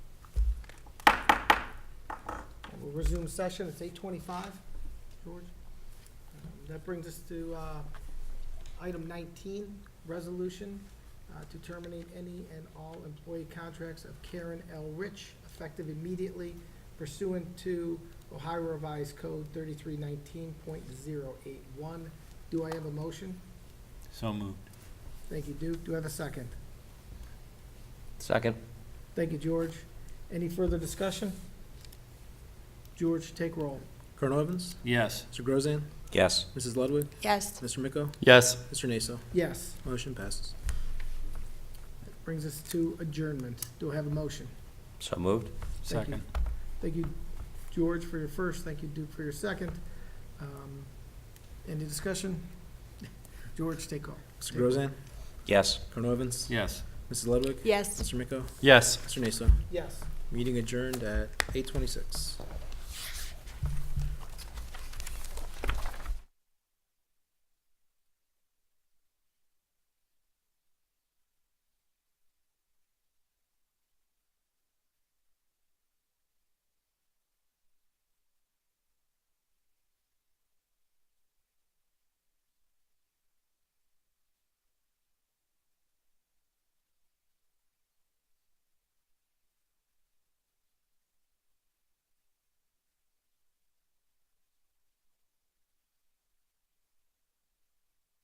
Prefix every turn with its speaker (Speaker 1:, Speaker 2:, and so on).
Speaker 1: We'll resume session, it's eight twenty-five, George. Um, That brings us to uh, item nineteen, resolution uh, to terminate any and all employee contracts of Karen L. Rich effective immediately pursuant to Ohio Revised Code thirty-three nineteen point zero eight one. Do I have a motion?
Speaker 2: So moved.
Speaker 1: Thank you, Duke. Do I have a second?
Speaker 3: Second.
Speaker 1: Thank you, George. Any further discussion? George, take roll.
Speaker 4: Colonel Evans?
Speaker 2: Yes.
Speaker 4: Mr. Grozan?
Speaker 3: Yes.
Speaker 4: Mrs. Ludwig?
Speaker 5: Yes,
Speaker 4: Mr. Miko?
Speaker 3: Yes.
Speaker 4: Mr. Naso?
Speaker 1: Yes.
Speaker 4: Motion passes.
Speaker 1: Brings us to adjournment. Do I have a motion?
Speaker 3: So moved.
Speaker 1: Thank you.
Speaker 2: Second.
Speaker 1: Thank you, George, for your first. Thank you, Duke, for your second. Um, Any discussion? George, take roll.
Speaker 4: Mr. Grozan?
Speaker 3: Yes.
Speaker 4: Colonel Evans?
Speaker 2: Yes.
Speaker 4: Mrs. Ludwig?
Speaker 5: yes.
Speaker 4: Mr. Miko?
Speaker 3: Yes.
Speaker 4: Mr. Naso?
Speaker 1: Yes.
Speaker 4: Meeting adjourned at eight twenty-six.